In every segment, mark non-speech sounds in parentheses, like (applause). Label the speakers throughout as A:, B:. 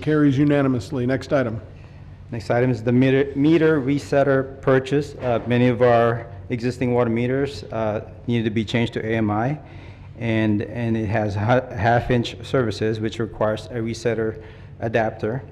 A: Carries unanimously. Next item.
B: Next item is the meter meter resetter purchase. Uh, Many of our existing water meters uh, needed to be changed to AMI, and, and it has ha- half-inch services, which requires a resetter adapter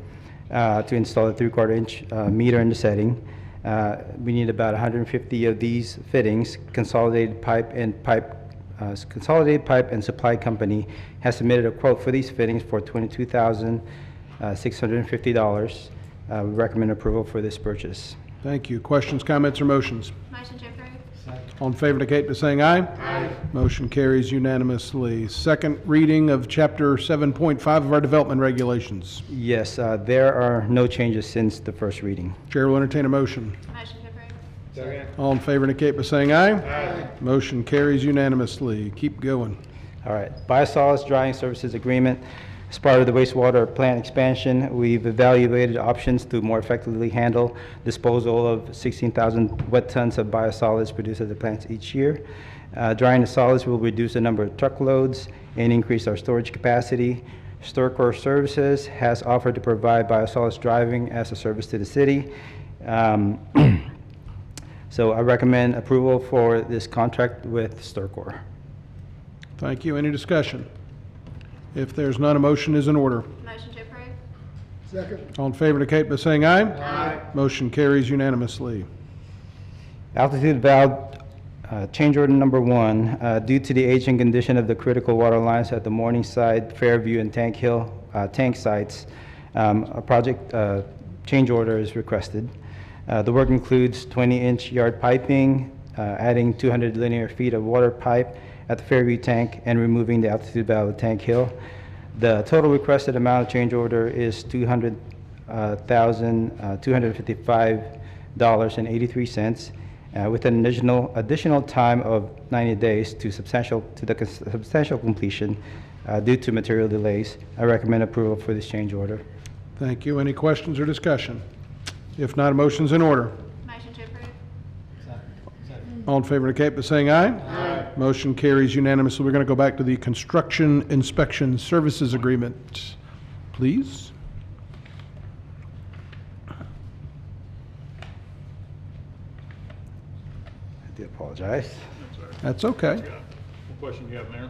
B: uh, to install a three-quarter inch uh, meter in the setting. Uh, We need about 150 of these fittings. Consolidated Pipe and Pipe uh, Consolidated Pipe and Supply Company has submitted a quote for these fittings for $22,650. Uh, We recommend approval for this purchase.
A: Thank you. Questions, comments, or motions?
C: Motion to approve.
A: All in favor indicate by saying aye. Aye. Motion carries unanimously. Second reading of Chapter 7.5 of our Development Regulations.
B: Yes, uh, there are no changes since the first reading.
A: Chair will entertain a motion.
C: Motion to approve.
A: All in favor indicate by saying aye. Aye. Motion carries unanimously. Keep going.
B: All right, Biosolids Drying Services Agreement. As part of the wastewater plant expansion, we've evaluated options to more effectively handle disposal of 16,000 wet tons of biosolids produced at the plants each year. Uh, Drying the solids will reduce the number of truckloads and increase our storage capacity. Sturcor Services has offered to provide biosolids driving as a service to the city. Um, (clears throat) So I recommend approval for this contract with Sturcor.
A: Thank you. Any discussion? If there's none, a motion is in order.
C: Motion to approve.
A: All in favor indicate by saying aye. Aye. Motion carries unanimously.
B: Altitude valve, uh, change order number one, uh, due to the aging condition of the critical water lines at the Morningside, Fairview, and Tank Hill uh, tank sites, um, a project uh, change order is requested. Uh, The work includes 20-inch yard piping, uh, adding 200 linear feet of water pipe at the Fairview tank, and removing the altitude valve at Tank Hill. The total requested amount of change order is 200,000, uh, $255.83, uh, with an additional, additional time of 90 days to substantial, to the cons- substantial completion uh, due to material delays. I recommend approval for this change order.
A: Thank you. Any questions or discussion? If not, a motion's in order.
C: Motion to approve.
A: All in favor indicate by saying aye. Aye. Motion carries unanimously. We're going to go back to the Construction Inspection Services Agreement, please.
B: I do apologize.
A: That's okay.
D: What question do you have, Mayor?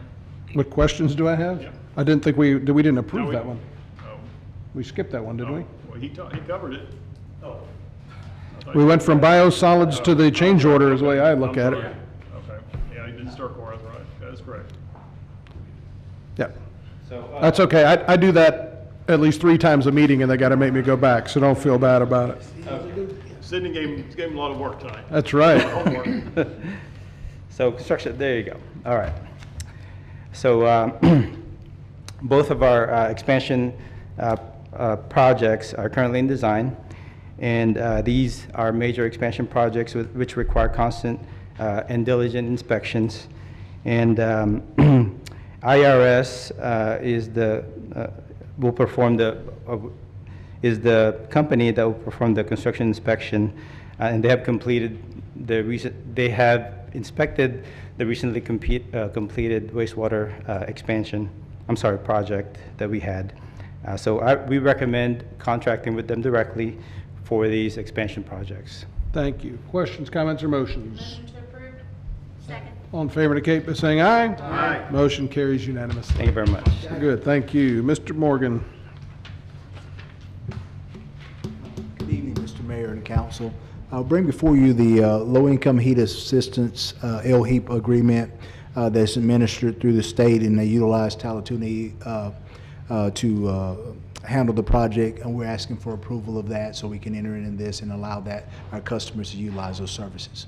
A: What questions do I have?
D: Yeah.
A: I didn't think we, we didn't
D: No,
A: approve
D: we-
A: that one.
D: Oh,
A: We skipped that one, didn't we?
D: oh, Well, he, ta- he covered it. Oh.
A: We went from biosolids to the change order is the way I look at it.
D: Okay, yeah, he did start Cora, that's right, that is correct.
A: Yeah,
B: So, uh,
A: that's okay. I, I do that at least three times a meeting and they got to make me go back, so don't feel bad about it.
D: Sydney gave him, gave him a lot of work tonight.
A: That's right.
D: Homework.
B: So construction, there you go. All right. So uh, (clears throat) both of our uh, expansion uh, uh, projects are currently in design, and uh, these are major expansion projects with- which require constant uh, and diligent inspections. And um, (clears throat) IRS uh, is the, uh, will perform the, uh, is the company that will perform the construction inspection, uh, and they have completed the recent, they have inspected the recently compete, uh, completed wastewater uh, expansion, I'm sorry, project that we had. Uh, So I, we recommend contracting with them directly for these expansion projects.
A: Thank you. Questions, comments, or motions?
C: Motion to approve. Second.
A: All in favor indicate by saying aye. Aye. Motion carries unanimously.
B: Thank you very much.
A: Good, thank you. Mr. Morgan,
E: Good evening, Mr. Mayor and Council. I'll bring before you the uh, Low-Income Heat Assistance uh, LHEAP agreement uh, that's administered through the state, and they utilize Talatuna uh, uh, to uh, handle the project, and we're asking for approval of that so we can enter into this and allow that, our customers to utilize those services.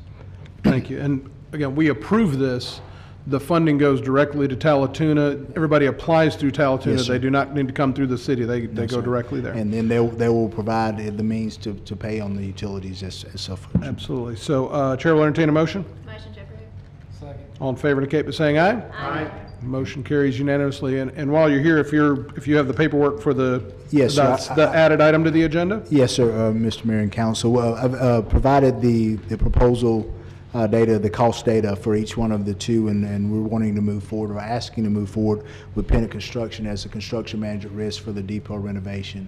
A: thank you. And again, we approve this. The funding goes directly to Talatuna. Everybody applies through
E: Yes,
A: Talatuna.
E: sir.
A: They do not need to come through the city. They, they go
E: sir.
A: directly there.
E: And then they they will provide the means to to pay on the utilities as as suffered.
A: Absolutely. So uh, Chair will entertain a motion.
C: Motion to approve.
A: All in favor indicate by saying aye.
C: Aye.
A: Motion carries unanimously. And, and while you're here, if you're, if you have the paperwork for the,
E: Yes, sir.
A: that's the added item to the agenda?
E: Yes, sir, uh, Mr. Mayor and Council. Well, I've uh, provided the the proposal uh, uh, data, the cost data for each one of the two, and, and we're wanting to move forward, or asking to move forward with Pennant Construction as a construction manager at risk for the depot renovation.